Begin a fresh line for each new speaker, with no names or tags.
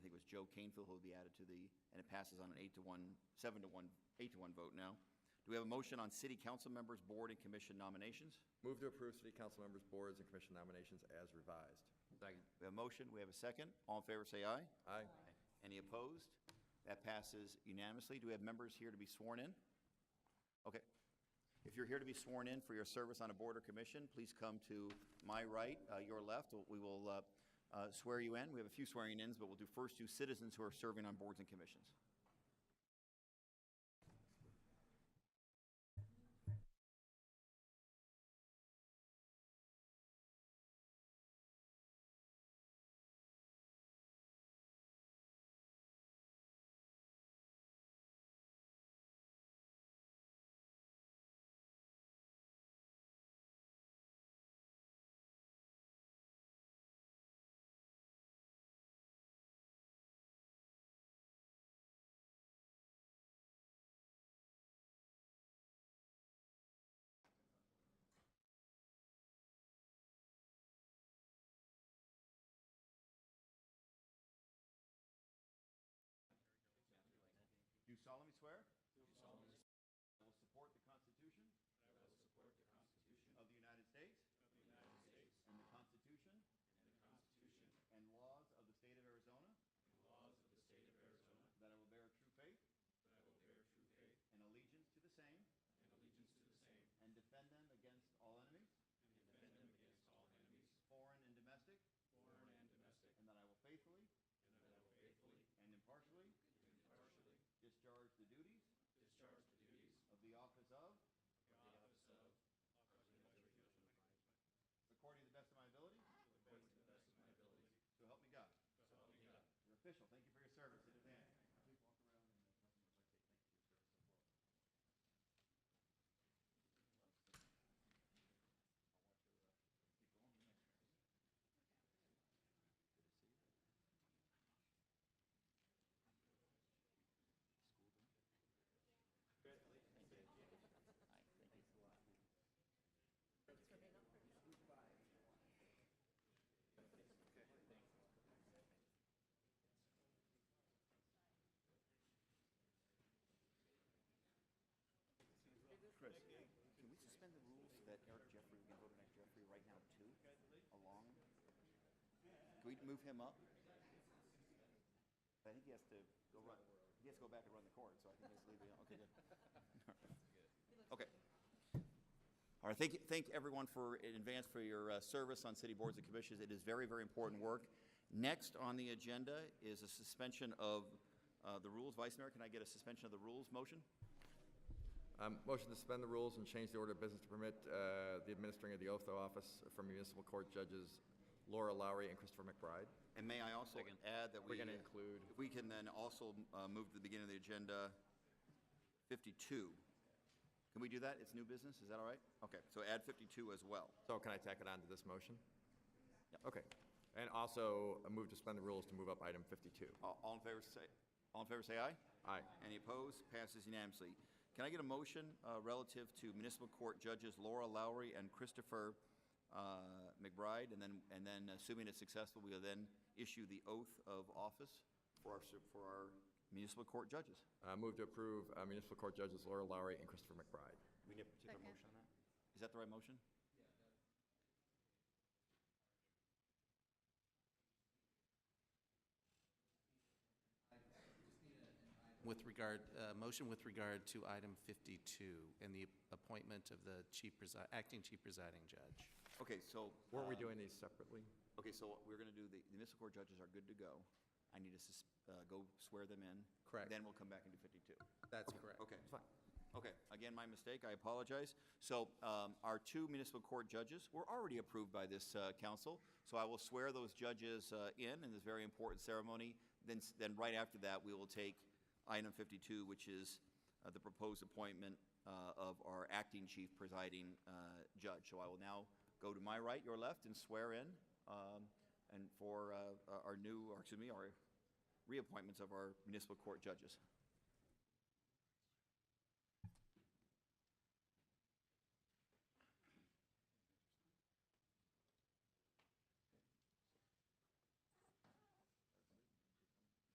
Joe Canfield, who will be added to the, and it passes on an eight to one, seven to one, eight to one vote now. Do we have a motion on city council members, board, and commission nominations?
Move to approve city council members' boards and commission nominations as revised.
Second.
We have a motion, we have a second. All in favor, say aye.
Aye.
Any opposed? That passes unanimously. Do we have members here to be sworn in? Okay. If you're here to be sworn in for your service on a board or commission, please come to my right, uh, your left. We will uh, uh, swear you in. We have a few swearing-ins, but we'll do first two citizens who are serving on boards and commissions. Do solemnly swear? Do solemnly swear. I will support the Constitution. Of the United States. And the Constitution. And laws of the state of Arizona. That I will bear true faith. And allegiance to the same. And defend them against all enemies. Foreign and domestic. And that I will faithfully. And impartially. Discharge the duties. Of the office of. According to the best of my ability. So help me God. You're official. Thank you for your service in advance. Chris, can we suspend the rules that Eric Jeffrey, we can vote on Eric Jeffrey right now too, along? Can we move him up? I think he has to go run, he has to go back and run the court, so I think let's leave it, okay, good. Okay. All right, thank, thank everyone for, in advance for your uh, service on city boards and commissions. It is very, very important work. Next on the agenda is a suspension of uh, the rules. Vice Mayor, can I get a suspension of the rules motion?
Um, Motion to suspend the rules and change the order of business to permit uh, the administering of the oath of office for municipal court judges Laura Lowry and Christopher McBride.
And may I also add that we...
We're gonna include-
If we can then also uh, move to the beginning of the agenda, 52. Can we do that? It's new business, is that all right? Okay, so add 52 as well.
So can I tack it on to this motion?
Yeah.
Okay. And also, a move to suspend the rules to move up item 52.
All all in favor, say, all in favor, say aye?
Aye.
Any opposed? Passes unanimously. Can I get a motion uh, relative to municipal court judges Laura Lowry and Christopher uh, McBride? And then, and then assuming it's successful, we will then issue the oath of office for our, su- for our municipal court judges.
Uh, Move to approve uh, municipal court judges Laura Lowry and Christopher McBride.
We need a particular motion on that? Is that the right motion?
With regard, uh, motion with regard to item 52 and the appointment of the chief, presi- acting chief presiding judge.
Okay, so, uh,
Weren't we doing these separately?
okay, so we're going to do, the the municipal court judges are good to go. I need to sus- uh, go swear them in.
Correct.
Then we'll come back and do 52.
That's correct.
Okay. Okay, again, my mistake, I apologize. So um, our two municipal court judges were already approved by this uh, council, so I will swear those judges uh, in in this very important ceremony. Then, s- then right after that, we will take item 52, which is uh, the proposed appointment uh, of our acting chief presiding uh, judge. So I will now go to my right, your left, and swear in, um, and for uh, our new, or excuse me, our reappointments of our municipal court judges.